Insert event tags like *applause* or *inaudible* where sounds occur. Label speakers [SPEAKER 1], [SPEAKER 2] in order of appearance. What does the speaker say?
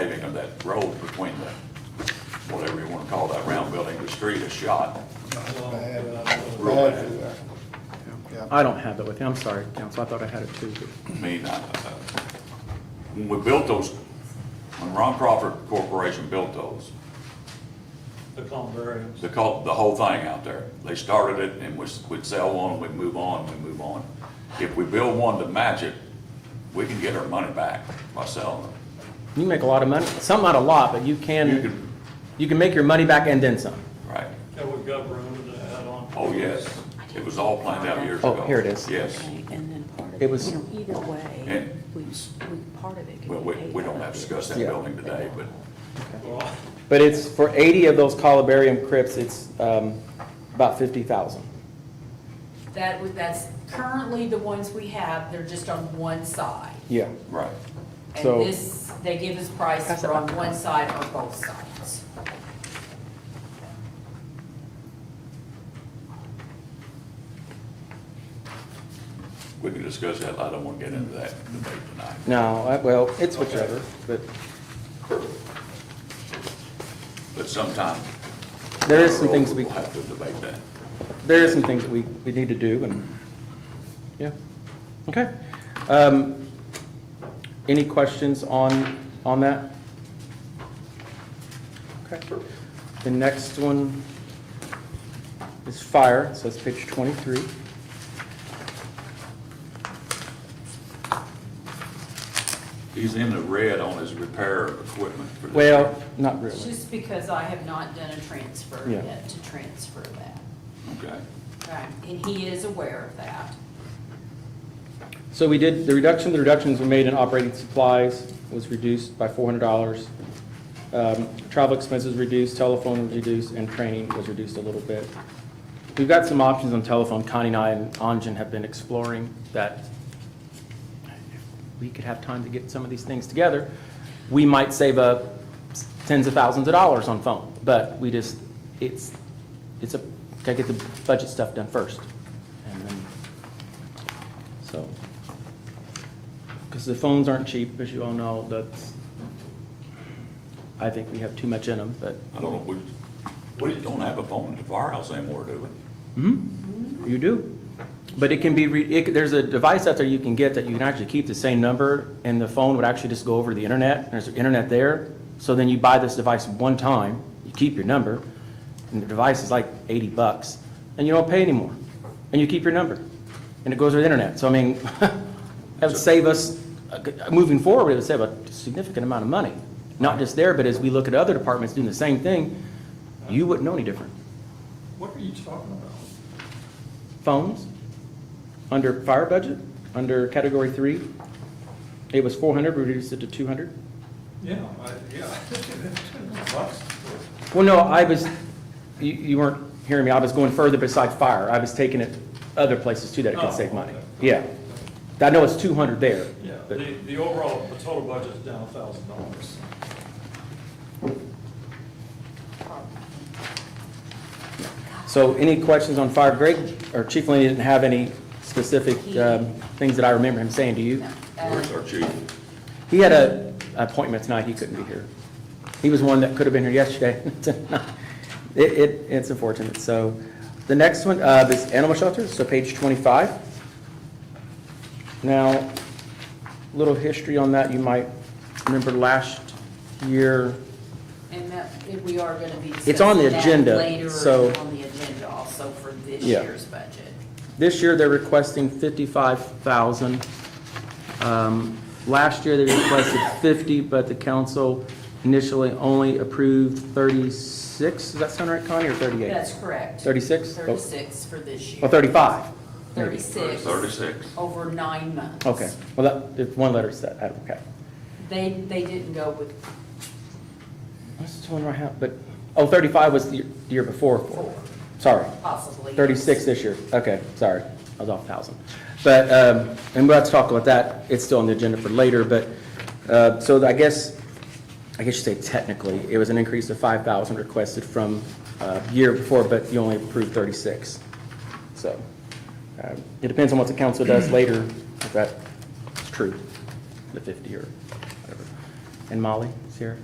[SPEAKER 1] road between the, whatever you wanna call that round building, the street is shot.
[SPEAKER 2] Bad,
[SPEAKER 1] Real
[SPEAKER 2] bad
[SPEAKER 1] bad.
[SPEAKER 2] through there. Yeah.
[SPEAKER 3] I don't have that with you. I'm sorry, council. I thought I had it too. but-
[SPEAKER 1] I mean, I- I- when we built those, when Ron Crawford Corporation built those,
[SPEAKER 4] The Columbariums.
[SPEAKER 1] the cul, the whole thing out there. They started it and we, we'd sell one, we'd move on, we'd move on. If we build one to match it, we can get our money back by selling them.
[SPEAKER 3] You make a lot of money, some not a lot, but you
[SPEAKER 1] You
[SPEAKER 3] can,
[SPEAKER 1] can,
[SPEAKER 3] you can make your money back and then some.
[SPEAKER 1] right,
[SPEAKER 4] And we've got room to add on.
[SPEAKER 1] oh, yes, it was all planned out years
[SPEAKER 3] Oh,
[SPEAKER 1] ago.
[SPEAKER 3] here it is.
[SPEAKER 1] Yes,
[SPEAKER 5] Okay, And then part of,
[SPEAKER 3] It was-
[SPEAKER 5] it, you know, either way,
[SPEAKER 1] And-
[SPEAKER 5] we, we, part of it could be
[SPEAKER 1] well, we, we
[SPEAKER 5] paid out
[SPEAKER 1] don't have
[SPEAKER 5] of
[SPEAKER 1] to
[SPEAKER 5] it.
[SPEAKER 1] discuss that
[SPEAKER 3] Yeah.
[SPEAKER 1] building today, but
[SPEAKER 4] Well,
[SPEAKER 3] But it's, for 80 of those columbarium crypts, it's um, about 50,000.
[SPEAKER 6] That was, that's currently the ones we have, they're just on one side.
[SPEAKER 3] Yeah.
[SPEAKER 1] Right,
[SPEAKER 6] And
[SPEAKER 3] So-
[SPEAKER 6] this, they give us prices for on one side or both sides.
[SPEAKER 1] we can discuss that, I don't wanna get into that debate tonight.
[SPEAKER 3] No, I- well, it's whichever, but
[SPEAKER 1] But sometime.
[SPEAKER 3] there is some things we,
[SPEAKER 1] We'll have to debate that.
[SPEAKER 3] there is some things we, we need to do and, yeah. Okay. Um, Any questions on, on that? Okay. The next one is fire, so it's page 23.
[SPEAKER 1] He's in the red on his repair of equipment for this. year.
[SPEAKER 3] Well, not really.
[SPEAKER 6] Just because I have not done a transfer
[SPEAKER 3] Yeah.
[SPEAKER 6] yet to transfer that.
[SPEAKER 1] Okay.
[SPEAKER 6] Right, and he is aware of that.
[SPEAKER 3] So we did, the reduction, the reductions we made in operating supplies was reduced by four hundred dollars. Um, Travel expenses reduced, telephone was reduced, and training was reduced a little bit. We've got some options on telephone. Connie and I and Anjan have been exploring that we could have time to get some of these things together. We might save up tens of thousands of dollars on phone, but we just, it's, it's a, gotta get the budget stuff done first. And then, so, because the phones aren't cheap, as you all know, that's, I think we have too much in them, but.
[SPEAKER 1] I don't know, we, we don't have a phone at the firehouse anymore, do we?
[SPEAKER 3] You do. But it can be, re- it, there's a device out there you can get that you can actually keep the same number, and the phone would actually just go over to the internet, and there's internet there. So then you buy this device one time, you keep your number, and the device is like eighty bucks, and you don't pay anymore, and you keep your number, and it goes to the internet. So I mean, *laughs* that would save us, uh, moving forward, it would save a significant amount of money. Not just there, but as we look at other departments doing the same thing, you wouldn't know any different
[SPEAKER 4] What are you talking about?
[SPEAKER 3] phones under fire budget, under category three. It was four hundred, we reduced it to two hundred.
[SPEAKER 4] Yeah, I, yeah. *laughs* Lots of-
[SPEAKER 3] Well, no, I was, you, you weren't hearing me. I was going further beside fire. I was taking it other places too that it
[SPEAKER 4] Oh,
[SPEAKER 3] could save money.
[SPEAKER 4] okay.
[SPEAKER 3] Yeah. I know it's two hundred there.
[SPEAKER 4] Yeah,
[SPEAKER 3] but-
[SPEAKER 4] the, the overall, the total budget's down a thousand dollars.
[SPEAKER 3] So any questions on fire? Greg, or Chief Lane didn't have any specific, um, things that I remember him saying to you?
[SPEAKER 6] Uh,
[SPEAKER 1] Where's our chief?
[SPEAKER 3] He had a an appointment tonight, he couldn't be here. He was one that could have been here yesterday. *laughs* It, it, it's unfortunate, so. The next one, uh, is animal shelters, so page twenty-five. Now, little history on that, you might remember last year,
[SPEAKER 6] And that, and we are gonna be
[SPEAKER 3] It's on the
[SPEAKER 6] discussing that
[SPEAKER 3] agenda,
[SPEAKER 6] later
[SPEAKER 3] so-
[SPEAKER 6] on the agenda also for this
[SPEAKER 3] Yeah.
[SPEAKER 6] year's budget.
[SPEAKER 3] this year they're requesting fifty-five thousand. Um, last year they requested fifty, but the council initially only approved thirty-six, does that sound right, Connie, or thirty-eight? Oh,
[SPEAKER 6] That's correct.
[SPEAKER 3] 36? Oh.
[SPEAKER 6] Thirty-six for this
[SPEAKER 3] Or
[SPEAKER 6] year.
[SPEAKER 3] 35?
[SPEAKER 6] Thirty-six.
[SPEAKER 1] Thirty-six.
[SPEAKER 6] Over nine months.
[SPEAKER 3] Okay, well, that, if one letter's that, I- okay.
[SPEAKER 6] They, they didn't go with
[SPEAKER 3] What's the one right now, but, oh, 35 was the year- the year before.
[SPEAKER 6] four,
[SPEAKER 3] Sorry,
[SPEAKER 6] possibly.
[SPEAKER 3] 36 this year, okay, sorry, I was off 1,000. But, um, and we'll have to talk about that, it's still on the agenda for later, but, uh, so I guess, I guess you say technically, it was an increase of 5,000 requested from uh, year before, but you only approved 36. So, um, it depends on what the council does later, if that's true, the 50 or whatever. And Molly, Sierra?